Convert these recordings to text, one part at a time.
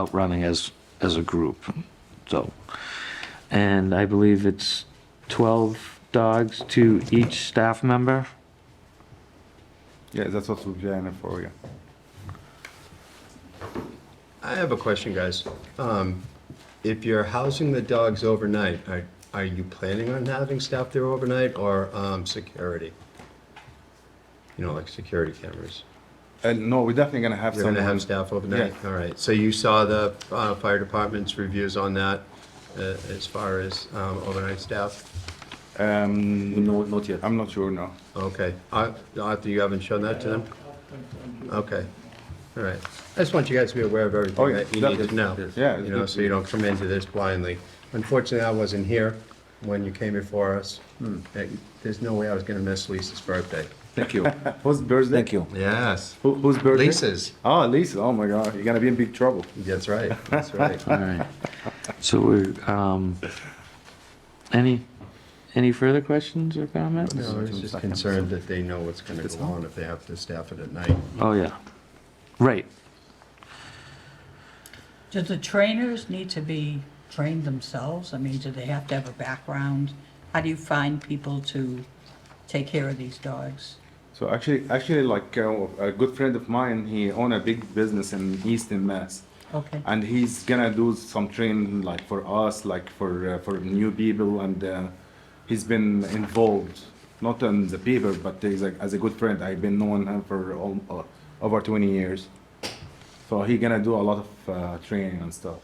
outrunning as, as a group, so. And I believe it's 12 dogs to each staff member? Yeah, that's what we're planning for, yeah. I have a question, guys. Um, If you're housing the dogs overnight, are are you planning on having staff there overnight or um, security? You know, like security cameras? And Uh, no, we're definitely gonna have You're some. going to have staff overnight? Yeah. All right, so you saw the uh, fire department's reviews on that uh, as far as um, overnight staff? Um, No, not yet. I'm not sure, no. Okay. Uh, Arthur, you haven't shown that to them? Okay, all right. I just want you guys to be aware of Oh, everything yeah, that you need to definitely. know. Yeah, it's You know, good. so you don't come into this blindly. Unfortunately, I wasn't here when you came before us. Uh, There's no way I was gonna miss Lisa's birthday. Thank you. Whose birthday? Thank you. Yes. Who, whose birthday? Lisa's. Oh, Lisa, oh my God, you're gonna be in big trouble. That's right, that's right. All right. So we're, um, any, any further questions or comments? No, I was just concerned that they know what's gonna go on if they have to staff it at night. Oh, yeah. Right. Do the trainers need to be trained themselves? I mean, do they have to have a background? How do you find people to take care of these dogs? So actually, actually, like uh, a good friend of mine, he own a big business in Eastern Mass. Okay, And he's gonna do some training like for us, like for, uh, for new people and uh, he's been involved, not on the people, but he's like, as a good friend, I've been knowing him for all, uh, over twenty years. So he gonna do a lot of uh, training and stuff.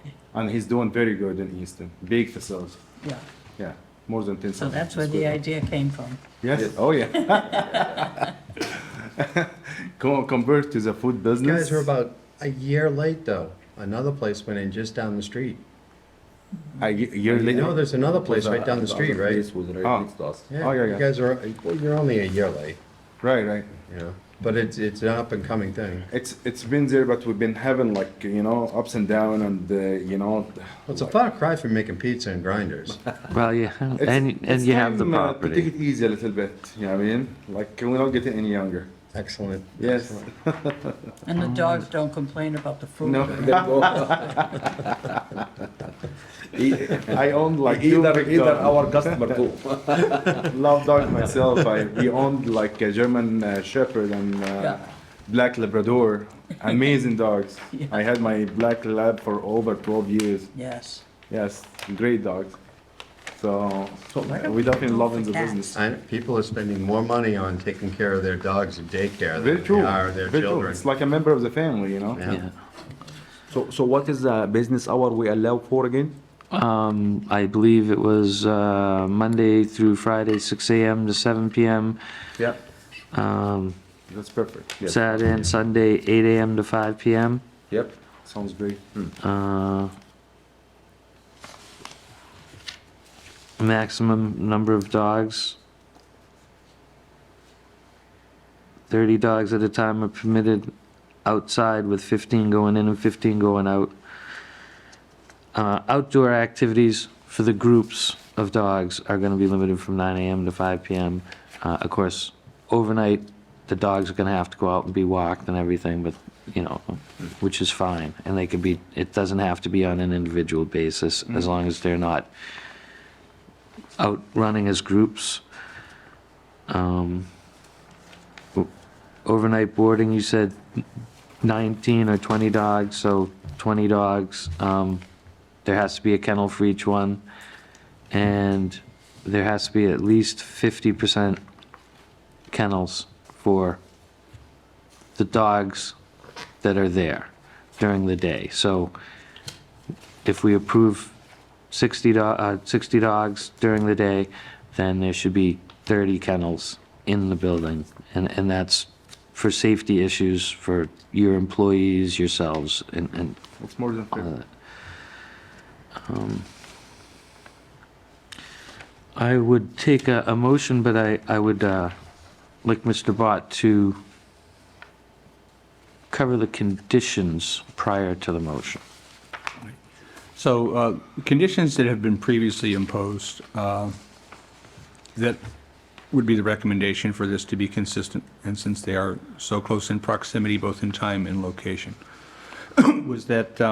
Okay. And he's doing very good in Easton, big facility, yeah. yeah, more than ten. So that's where what the idea came from. Yes, oh yeah. Con- Convert to the food You business. guys were about a year late, though. Another place went in just down the street. A ye- year You later. know, there's another place right down the street, right? This was Ah. right next to us. Oh, yeah, You yeah. guys are, well, you're only a year late, Right, right. you know, but it's, it's an up and coming thing. It's it's been there, but we've been having like you know ups and down, and uh, you know. Well, it's a far cry from making pizza and grinders. Well, yeah, it's- and, and it's you have the time, uh, To take property. it easy a little bit, you know what I mean? Like we're not getting any younger. Excellent. Yes. And the dogs don't complain about the food? No. I own like two Either, big either dogs. our customer too. love dog myself. I we owned like a German uh, Shepherd and uh, Yeah. black Labrador. Amazing dogs. Yeah. I had my black lab for over 12 years. Yes. Yes, great dogs. So, we definitely love in the cats? business. And people are spending more money on taking care of their dogs in daycare Very than true. they are their Very true. children. It's like a member of the family, you know. Yeah. Yeah. So, so what is the business hour we allow for again? Um, I believe it was, uh, Monday through Friday, 6 AM to 7 PM. Yeah. Um, That's perfect. Yes. Saturday and Sunday, 8 AM to 5 PM. Yep. Sounds great. Uh, maximum number of dogs. 30 dogs at a time are permitted outside with 15 going in and 15 going out. Uh, outdoor activities for the groups of dogs are going to be limited from 9 AM to 5 PM. Uh, of course, overnight, the dogs are going to have to go out and be walked and everything, but, you know, which is fine, and they can be, it doesn't have to be on an individual basis, as long as they're not out running as groups. Um, o- Overnight boarding, you said 19 or 20 dogs, so 20 dogs. Um, There has to be a kennel for each one, and there has to be at least 50% kennels for the dogs that are there during the day. So if we approve 60, do- uh, 60 dogs during the day, then there should be 30 kennels in the building. And, and that's for safety issues for your employees, yourselves, and, and It's more than all fair. that. Um, I would take a, a motion, but I, I would, uh, like Mr. Bott, to cover the conditions prior to the motion. So uh, conditions that have been previously imposed, uh, that would be the recommendation for this to be consistent, and since they are so close in proximity, both in time and location. was that uh,